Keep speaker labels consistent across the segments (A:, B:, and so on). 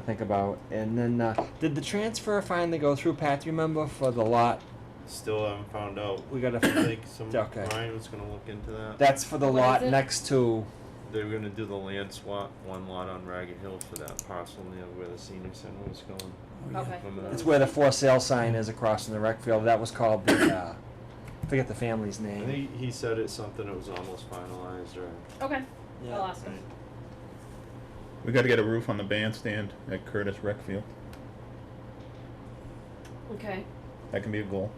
A: think about. And then, uh, did the transfer finally go through, Pat? Do you remember for the lot?
B: Still haven't found out.
A: We got
B: I
A: to.
B: think some
A: Okay.
B: Ryan was gonna look into that.
A: That's for the
C: What
A: lot
C: is it?
A: next to.
B: They were gonna do the land swap, one lot on Ragged Hill for that parcel near where the senior center was going.
D: Oh,
C: Okay.
B: Remember that?
A: It's where the for sale sign is across from the rec field. That was called the. Uh, forget the family's
B: I
A: name.
B: think he said it's something that was almost finalized or.
C: Okay.
A: Yeah.
C: I'll ask him.
D: We got to get a roof on the bandstand at Curtis Rec Field.
C: Okay.
D: That can be a goal.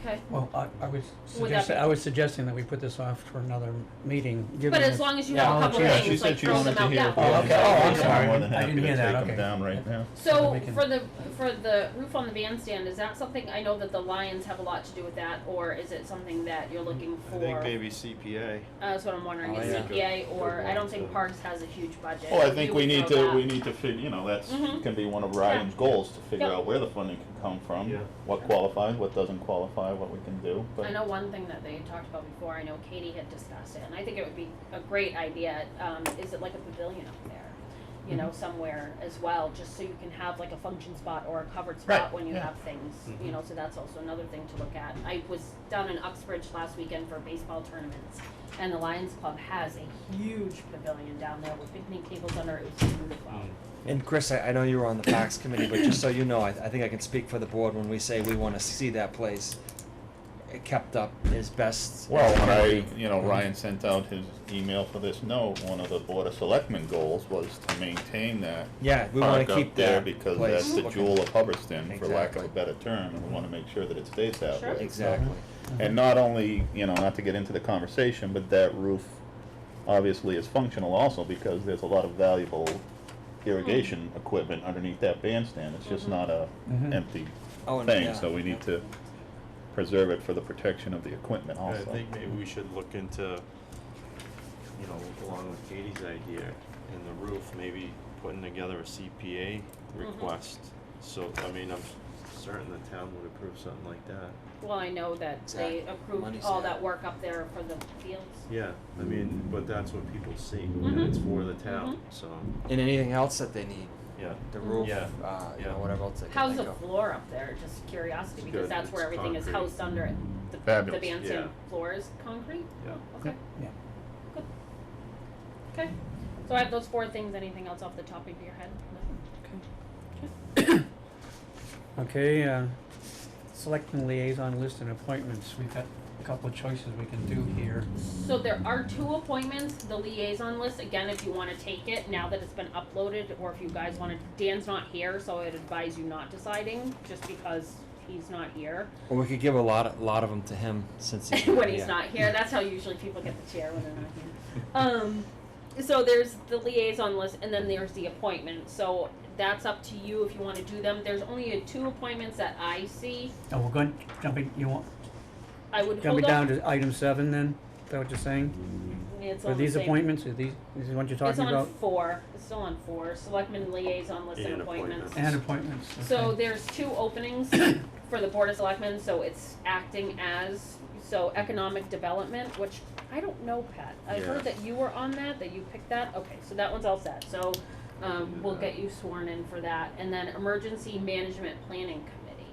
C: Okay.
E: Well, I, I was
C: Would that
E: suggesting,
C: be-
E: I was suggesting that we put this off for another meeting, given.
C: But as
E: that-
C: long as you
A: Yeah,
C: have a
A: I'll
C: couple
A: let you know.
D: She
C: things,
D: said
C: like
D: she
C: throw
D: wanted
C: them
D: to
C: out.
D: hear.
C: Yeah.
D: if we
E: Oh,
D: could
E: okay.
D: take
E: Oh,
D: them
E: I'm
D: down.
E: sorry.
D: More than
E: I didn't
D: happy to
E: hear that.
D: take them
E: Okay.
D: down right now.
E: So
C: So
E: we can-
C: for the for the roof on the bandstand, is that something I know that the Lions have a lot to do with that, or is it something that you're looking for?
B: I think maybe CPA.
C: Uh, that's what I'm wondering.
A: Oh,
C: is
A: yeah.
C: CPA or
B: Good
C: I don't
B: one,
C: think
B: so.
C: Parks has a huge budget.
D: Well, Oh, I
C: You
D: think
C: would
D: we need
C: throw
D: to,
C: that.
D: we need to figure, you know, that's,
C: Mhm.
D: can be one of Ryan's goals, to figure
C: Yep.
D: out where the funding can come from.
B: Yeah.
D: What qualifies, what doesn't qualify, what we can do,
C: I
D: but,
C: know one thing that they had talked about before. I know Katie had discussed it, and I think it would be a great idea. Um, is it like a pavilion up there, you know,
D: Mm-hmm.
C: somewhere as well, just so you can have like a function spot or a covered spot
D: Right,
C: when you
D: yeah. Mm-hmm.
C: have things, you
B: Mhm.
C: know. So that's also another thing to look at. I was down in Uxbridge last weekend for baseball tournaments, and the Lions Club has a huge pavilion down there with picnic tables under it. It was beautiful.
D: Mm.
A: And Chris, I, I know you were on the Fox committee, but just so you know, I, I think I can speak for the board when we say we want to see that place kept up as best.
D: well,
A: as
D: when
A: can
D: I,
A: be.
D: you know, Ryan sent out his email for this note, one of the Board of Selectmen goals was to maintain that
A: Yeah, we want
D: park
A: to
D: up
A: keep
D: there
A: that
D: because
A: place
D: that's the
A: looking-
D: jewel of Hubbardston, for lack of
A: Exactly.
D: a better term, and we wanna make sure that it stays that
C: Sure.
D: way. So-
A: Exactly.
E: uh-huh.
D: And not only, you know, not to get into the conversation, but that roof obviously is functional also because there's a lot of valuable irrigation
C: Mm-hmm.
D: equipment underneath that bandstand. It's just not a
E: Mhm.
D: empty
A: Oh, and yeah.
D: thing, so we need to preserve it for the protection of the equipment
B: I
D: also.
B: think maybe we should look into, you know, along with Katie's idea in the roof, maybe putting together a CPA request. So, I mean, I'm certain the town would approve something like that.
C: Well, I know that they
A: Exactly.
C: approved
A: Money's
C: all
A: there.
C: that work up there for the fields.
B: Yeah, I mean, but that's what people see, and
C: Mhm.
B: it's for the town, so,
A: And anything else that they need,
B: yeah.
A: the roof,
B: Yeah,
A: uh, you
B: yeah.
A: know, whatever else they can
C: How's
A: think
C: the
A: of.
C: floor up there? Just curiosity, because
B: good.
C: that's where
B: It's
C: everything is
B: concrete.
C: housed under it. The, the
D: Fabulous.
C: bandstand
B: Yeah.
C: floor is concrete?
B: Yeah.
C: Oh, Okay,
E: Yeah.
C: okay. So I have those four things. Anything else off the top of your head? No?
E: Okay, uh, selecting liaison list and appointments, we've got a couple of choices we can do here.
C: So there are two appointments, the liaison list, again, if you wanna take it, now that it's been uploaded, or if you guys wanna, Dan's not here, so I'd advise you not deciding, just because he's not here.
A: Well, we could give a lot, of- lot of them to him since he's.
C: when he's
A: yeah.
C: not here. That's how usually people get the chair when they're not here. Um, so there's the liaison list, and then there's the appointment. So that's up to you if you want to do them. There's only uh, two appointments that I see.
E: Oh, we're going, jumping, you want,
C: I would hold
E: jumping down
C: up.
E: to item seven then, is that what you're saying?
C: It's
E: Are
C: on the
E: these
C: same-
E: appointments, are these, is what you're
C: It's
E: talking
C: on
E: about?
C: four. It's still on four. Selectmen liaison list and,
B: And
C: appointments.
B: appointments.
E: And appointments, okay.
C: So there's two openings for the Board of Selectmen, so it's acting as, so economic development, which I don't know, Pat. I heard
B: Yeah.
C: that you were on that, that you picked that, okay, so that one's all set, so, um, we'll get you sworn in for that, and then Emergency Management Planning Committee.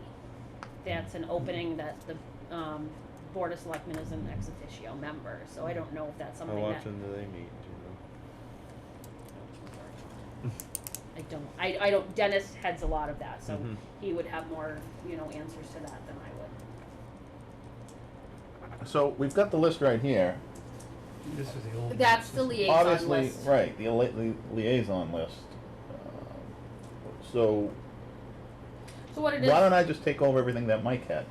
C: That's an opening that the, um, Board of Selectmen is an ex officio member, so I don't know if that's
B: How
C: something that.
B: often do they meet, do
C: I don't, I, I don't, Dennis heads a lot of that, so
B: Mhm.
C: he would have more, you know, answers to that than I would.
D: So we've got the list right here.
E: This is the old.
C: That's the liaison
D: Obviously,
C: list.
D: right, the li- li- liaison list. Um, So
C: So what it is,
D: why don't I just take over everything that Mike had?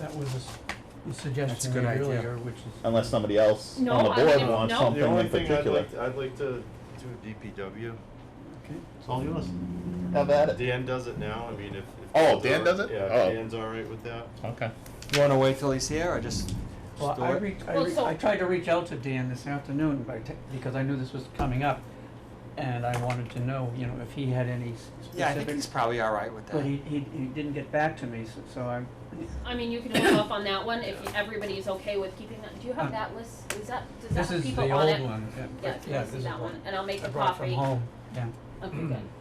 E: That was a s- a
A: That's a
E: suggestion
A: good
E: made
A: idea.
E: earlier, which is.
D: Unless somebody else on
C: No,
D: the
C: I
D: board
C: mean, no.
D: wants
B: they?
D: something
B: The only
D: in
B: thing I'd
D: particular.
B: like, I'd like to do DPW.
E: Okay.
D: It's all yours. Have at it.
B: Dan does it now, I mean, if. if
D: Oh,
B: Dan's
D: Dan
B: all-
D: does it?
B: Yeah,
D: Oh.
B: if Dan's all right with that.
D: Okay.
A: You wanna wait till he's here or just?
E: Well,
A: just do
E: I
A: it?
E: re- I,
C: Well,
E: re-
C: so-
E: I tried to reach out to Dan this afternoon by te- because I knew this was coming up, and I wanted to know, you know, if he had any s- specific.
A: Yeah, I think he's probably all right with
E: But he,
A: that.
E: he, he didn't get back to me, so, so I,
C: I mean, you can hold off on that one if everybody's okay with keeping that, do you have that list, is that, does that
E: Uh, this
C: have
E: is the
C: people on it?
E: old one, yeah.
C: Yeah, if you
E: but-
C: want to
E: this
C: see
E: is
C: that
E: the
C: one, and I'll make the
E: I brought from
C: coffee.
E: home, yeah.
C: Okay, good.